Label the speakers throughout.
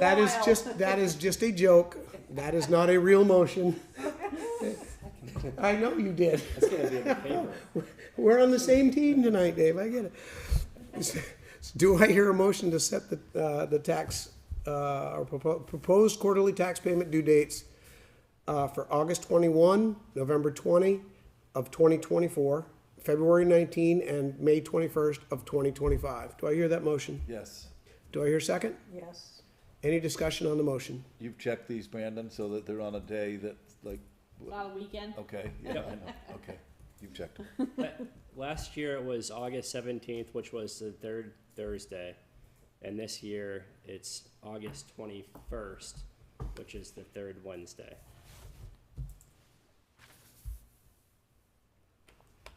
Speaker 1: That is
Speaker 2: Wild.
Speaker 1: just, that is just a joke. That is not a real motion. I know you did.
Speaker 3: It's gonna be in the paper.
Speaker 1: We're on the same team tonight, Dave, I get it. Do I hear a motion to set the, uh, the tax, uh, or propo- proposed quarterly tax payment due dates uh, for August twenty-one, November twenty of twenty twenty-four, February nineteen, and May twenty-first of twenty twenty-five? Do I hear that motion?
Speaker 4: Yes.
Speaker 1: Do I hear a second?
Speaker 2: Yes.
Speaker 1: Any discussion on the motion?
Speaker 4: You've checked these, Brandon, so that they're on a day that, like,
Speaker 5: Not a weekend.
Speaker 4: okay, yeah, I
Speaker 3: Yep.
Speaker 4: know, okay. You've checked.
Speaker 3: Last year it was August seventeenth, which was the third Thursday, and this year it's August twenty-first, which is the third Wednesday.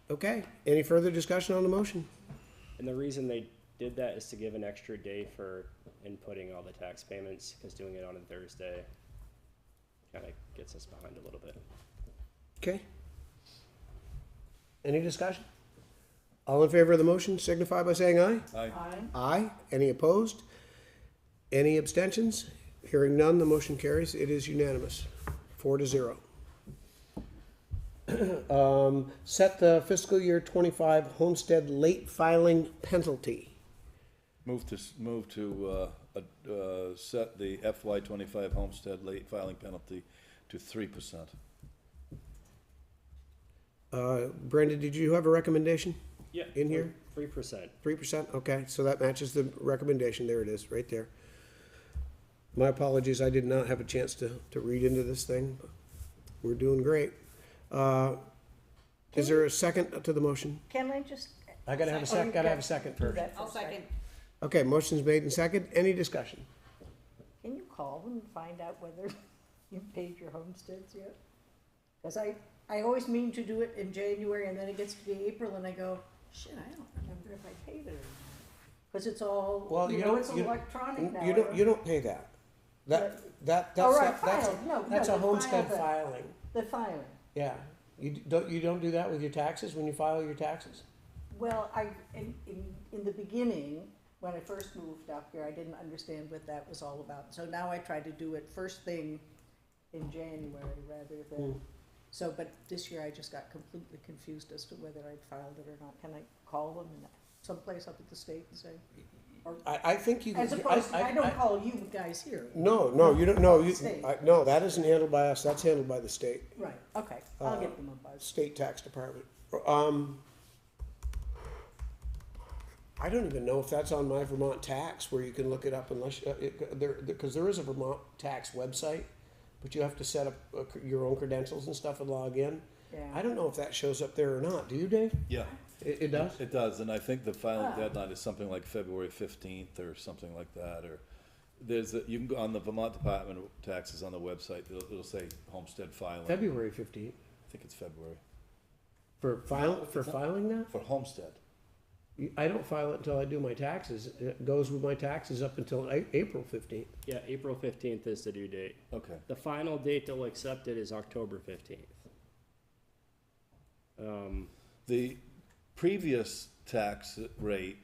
Speaker 1: Okay, any further discussion on the motion?
Speaker 3: And the reason they did that is to give an extra day for inputting all the tax payments, because doing it on a Thursday kind of gets us behind a little bit.
Speaker 1: Okay. Any discussion? All in favor of the motion signify by saying aye.
Speaker 4: Aye.
Speaker 2: Aye.
Speaker 1: Aye. Any opposed? Any abstentions? Hearing none, the motion carries. It is unanimous, four to zero. Um, set the fiscal year twenty-five homestead late filing penalty.
Speaker 4: Move to, s- move to, uh, ad- uh, set the FY twenty-five homestead late filing penalty to three percent.
Speaker 1: Uh, Brenda, did you have a recommendation?
Speaker 3: Yeah.
Speaker 1: In here?
Speaker 3: Three percent.
Speaker 1: Three percent, okay, so that matches the recommendation, there it is, right there. My apologies, I did not have a chance to, to read into this thing, but we're doing great. Uh, Is there a second to the motion?
Speaker 2: Can I just?
Speaker 1: I gotta have a sec, gotta have a second
Speaker 2: do
Speaker 1: first.
Speaker 2: that for
Speaker 5: I'll
Speaker 2: a second?
Speaker 5: second.
Speaker 1: Okay, motion's made and second, any discussion?
Speaker 2: Can you call them and find out whether you paid your homesteads yet? Cause I, I always mean to do it in January and then it gets to be April and I go, shit, I don't remember if I paid it or not. Cause it's all,
Speaker 1: Well,
Speaker 2: you
Speaker 1: you
Speaker 2: know,
Speaker 1: don't-
Speaker 2: it's
Speaker 1: you-
Speaker 2: electronic now.
Speaker 1: You don't, you don't pay that. That, that,
Speaker 2: All
Speaker 1: that's,
Speaker 2: right,
Speaker 1: a- that's,
Speaker 2: filed. No, no,
Speaker 1: that's a
Speaker 2: the
Speaker 1: homestead
Speaker 2: file,
Speaker 1: filing,
Speaker 2: The filing.
Speaker 1: yeah. You d- don't, you don't do that with your taxes, when you file your taxes?
Speaker 2: Well, I, in, in, in the beginning, when I first moved up here, I didn't understand what that was all about. So now I try to do it first thing in January rather
Speaker 1: Hmm.
Speaker 2: than, so, but this year I just got completely confused as to whether I'd filed it or not. Can I call them in someplace up at the state and say?
Speaker 1: I, I think you.
Speaker 2: As
Speaker 1: I-
Speaker 2: opposed,
Speaker 1: I-
Speaker 2: I
Speaker 1: I- Mm.
Speaker 2: don't call you guys here.
Speaker 1: No, no, you don't, no, you,
Speaker 2: State.
Speaker 1: I- no, that isn't handled by us, that's handled by the state,
Speaker 2: Right, okay,
Speaker 1: Uh,
Speaker 2: I'll get them a buzz.
Speaker 1: state tax department. Um, I don't even know if that's on my Vermont tax where you can look it up unless, uh, it, there, because there is a Vermont tax website, but you have to set up uh, your own credentials and stuff and log in. I
Speaker 2: Yeah,
Speaker 1: don't know if that shows up there or not, do you, Dave?
Speaker 4: Yeah.
Speaker 1: It, it does?
Speaker 4: It does, and I think the
Speaker 2: Ah.
Speaker 4: filing deadline is something like February fifteenth or something like that, or there's, a- you can go on the Vermont Department of Taxes on the website, it'll, it'll say homestead filing. I
Speaker 1: February fifteenth,
Speaker 4: think it's February,
Speaker 1: for file, for filing that?
Speaker 4: for homestead.
Speaker 1: I don't file it until I do my taxes, it goes with my taxes up until A- April fifteenth.
Speaker 3: Yeah, April fifteenth is the due date.
Speaker 4: Okay,
Speaker 3: The final date they'll accept it is October fifteenth. Um,
Speaker 4: the previous tax rate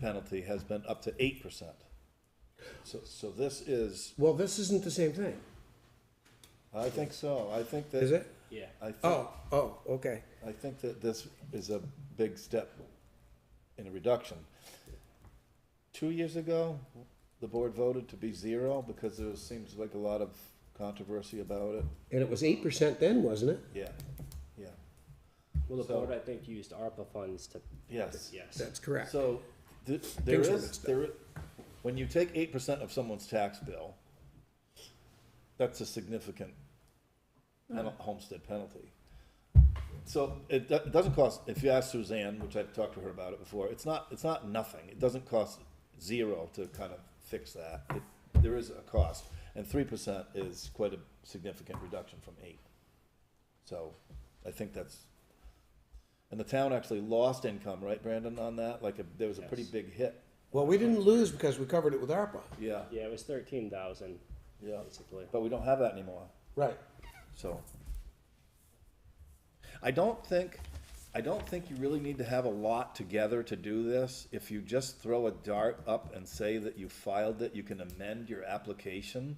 Speaker 4: penalty has been up to eight percent. So, so this is,
Speaker 1: Well, this isn't the same thing,
Speaker 4: I think so, I think that.
Speaker 1: is it?
Speaker 3: yeah.
Speaker 4: I think,
Speaker 1: Oh, oh, okay.
Speaker 4: I think that this is a big step in a reduction. Two years ago, the board voted to be zero because there seems like a lot of controversy about it.
Speaker 1: And it was eight percent then, wasn't it?
Speaker 4: Yeah, yeah,
Speaker 3: Well, the
Speaker 4: So-
Speaker 3: board, I think, used ARPA funds to,
Speaker 4: yes.
Speaker 3: yes.
Speaker 1: That's correct.
Speaker 4: So, th- there
Speaker 1: Things were
Speaker 4: is,
Speaker 1: mixed up.
Speaker 4: there, i- when you take eight percent of someone's tax bill, that's a significant penal- homestead penalty. So it do- it doesn't cost, if you ask Suzanne, which I've talked to her about it before, it's not, it's not nothing. It doesn't cost zero to kind of fix that. It- There is a cost. And three percent is quite a significant reduction from eight. So I think that's, and the town actually lost income, right, Brandon, on that? Like, a- there was a pretty
Speaker 3: Yes.
Speaker 4: big hit.
Speaker 1: Well, we didn't lose because we covered it with ARPA.
Speaker 4: Yeah,
Speaker 3: Yeah, it was thirteen thousand,
Speaker 4: yeah.
Speaker 3: basically.
Speaker 4: But we don't have that anymore.
Speaker 1: Right.
Speaker 4: So. I don't think I don't think you really need to have a lot together to do this. If you just throw a dart up and say that you filed it, you can amend your application.